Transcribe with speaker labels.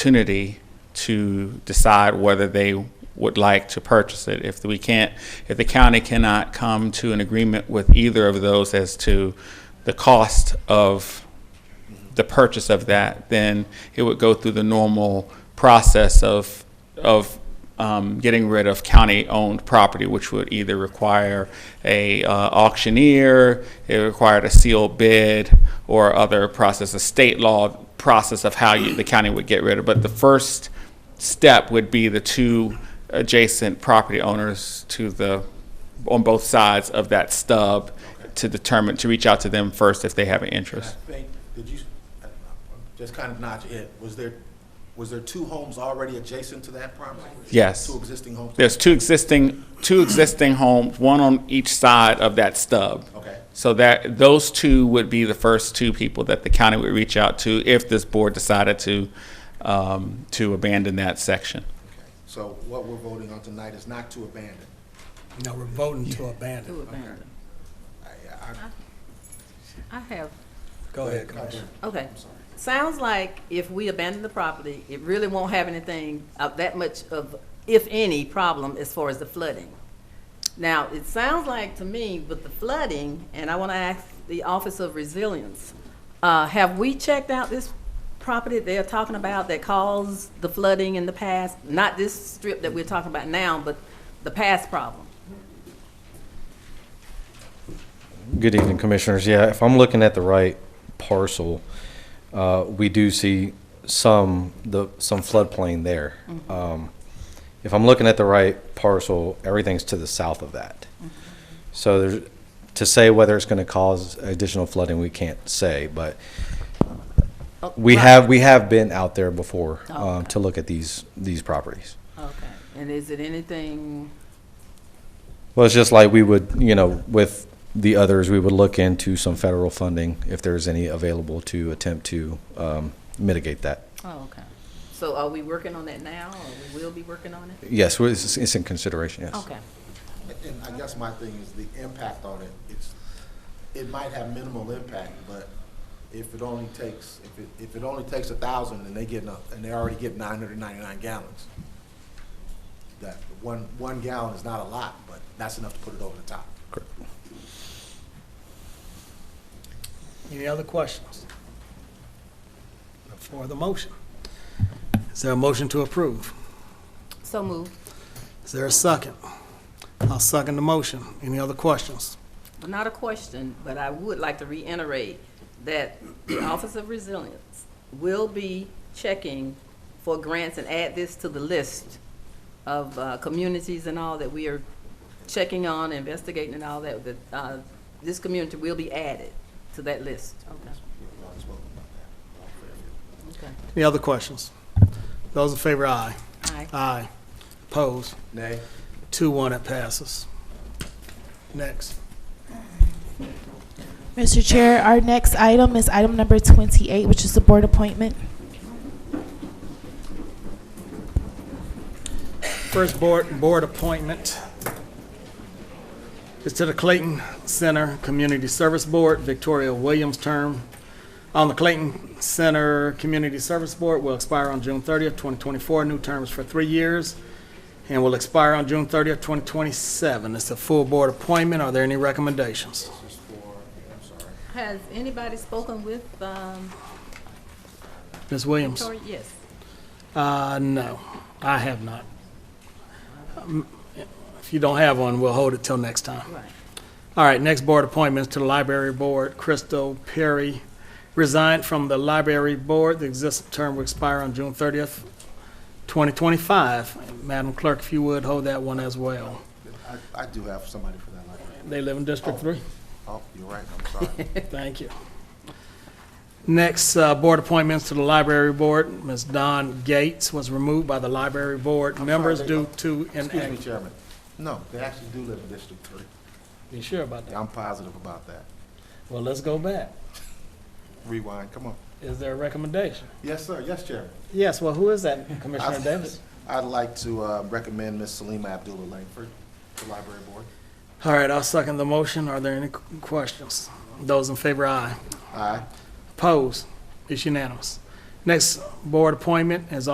Speaker 1: opportunity to decide whether they would like to purchase it. If we can't, if the county cannot come to an agreement with either of those as to the cost of the purchase of that, then it would go through the normal process of, of um, getting rid of county-owned property, which would either require a uh, auctioneer, it required a sealed bid, or other process, a state law process of how you, the county would get rid of. But the first step would be the two adjacent property owners to the, on both sides of that stub to determine, to reach out to them first if they have an
Speaker 2: I
Speaker 1: interest.
Speaker 2: think, did you, I- I'm just kind of nod your head, was there, was there two homes already adjacent to that property?
Speaker 1: Yes.
Speaker 2: Two existing homes?
Speaker 1: There's two existing, two existing homes, one on each side of that stub.
Speaker 2: Okay.
Speaker 1: So that, those two would be the first two people that the county would reach out to if this board decided to, um, to abandon that section.
Speaker 2: Okay. So what we're voting on tonight is not to abandon.
Speaker 3: No, we're voting to abandon.
Speaker 2: I- I-
Speaker 4: I have,
Speaker 3: Go ahead,
Speaker 2: I-
Speaker 3: Commissioner.
Speaker 4: okay.
Speaker 2: I'm sorry.
Speaker 4: Sounds like if we abandon the property, it really won't have anything of that much of, if any, problem as far as the flooding. Now, it sounds like to me with the flooding, and I want to ask the Office of Resilience, uh, have we checked out this property they're talking about that caused the flooding in the past? Not this strip that we're talking about now, but the past problem.
Speaker 5: Good evening, Commissioners. Yeah, if I'm looking at the right parcel, uh, we do see some, the, some floodplain there.
Speaker 4: Mm-hmm.
Speaker 5: Um, If I'm looking at the right parcel, everything's to the south of that.
Speaker 4: Mm-hmm.
Speaker 5: So there's, to say whether it's going to cause additional flooding, we can't say, but
Speaker 4: Oh,
Speaker 5: we
Speaker 4: right.
Speaker 5: have, we have been out there before um,
Speaker 4: Okay.
Speaker 5: to look at these, these properties.
Speaker 4: Okay, and is it anything,
Speaker 5: Well, it's just like we would, you know, with the others, we would look into some federal funding if there's any available to attempt to um, mitigate that.
Speaker 4: oh, okay. So are we working on that now, or we will be working on it?
Speaker 5: Yes, well, it's, it's in consideration, yes.
Speaker 4: Okay,
Speaker 2: And I guess my thing is the impact on it, it's, it might have minimal impact, but if it only takes, if it, if it only takes a thousand and they get, and they already get nine hundred and ninety-nine gallons, that one, one gallon is not a lot, but that's enough to put it over the top.
Speaker 3: Any other questions? For the motion. Is there a motion to approve?
Speaker 4: so moved.
Speaker 3: Is there a second? I'll second the motion. Any other questions?
Speaker 4: Not a question, but I would like to reiterate that the Office of Resilience will be checking for grants and add this to the list of uh, communities and all that we are checking on, investigating and all that, that uh, this community will be added to that list. Okay.
Speaker 2: We already spoke about that.
Speaker 4: Okay.
Speaker 3: Any other questions? Those in favor, aye.
Speaker 4: Aye.
Speaker 3: Aye. Opposed?
Speaker 2: Nay?
Speaker 3: Two, one, it passes. Next.
Speaker 6: Mr. Chair, our next item is item number 28, which is the board appointment.
Speaker 3: First board, board appointment is to the Clayton Center Community Service Board. Victoria Williams' term on the Clayton Center Community Service Board will expire on June 30th, 2024. New terms for three years and will expire on June 30th, 2027. It's a full board appointment. Are there any recommendations?
Speaker 4: Has anybody spoken with um,
Speaker 3: Ms. Williams?
Speaker 4: Victoria? Yes.
Speaker 3: Uh, no, I have not. Um, If you don't have one, we'll hold it till next time.
Speaker 4: Right.
Speaker 3: All right, next board appointments to the library board. Crystal Perry resigned from the library board. The existing term will expire on June thirtieth, twenty twenty-five. Madam Clerk, if you would, hold that one as well.
Speaker 2: I, I do have somebody for that library.
Speaker 3: They live in District Three.
Speaker 2: Oh, you're right, I'm sorry.
Speaker 3: Thank you. Next, uh, board appointments to the library board. Ms. Don Gates was removed by the library board members
Speaker 2: they-
Speaker 3: due to
Speaker 2: Excuse me,
Speaker 3: inaction.
Speaker 2: Chairman. No, they actually do live in District Three.
Speaker 3: You sure about that?
Speaker 2: I'm positive about that.
Speaker 3: Well, let's go back.
Speaker 2: Rewind, come on.
Speaker 3: Is there a recommendation?
Speaker 2: Yes, sir, yes, Chairman.
Speaker 3: Yes, well, who is that, Commissioner Davis?
Speaker 2: I'd like to uh, recommend Ms. Salima Abdullah Langford to Library Board.
Speaker 3: All right, I'll second the motion. Are there any qu- questions? Those in favor, aye.
Speaker 2: Aye.
Speaker 3: Opposed? It's unanimous. Next board appointment, as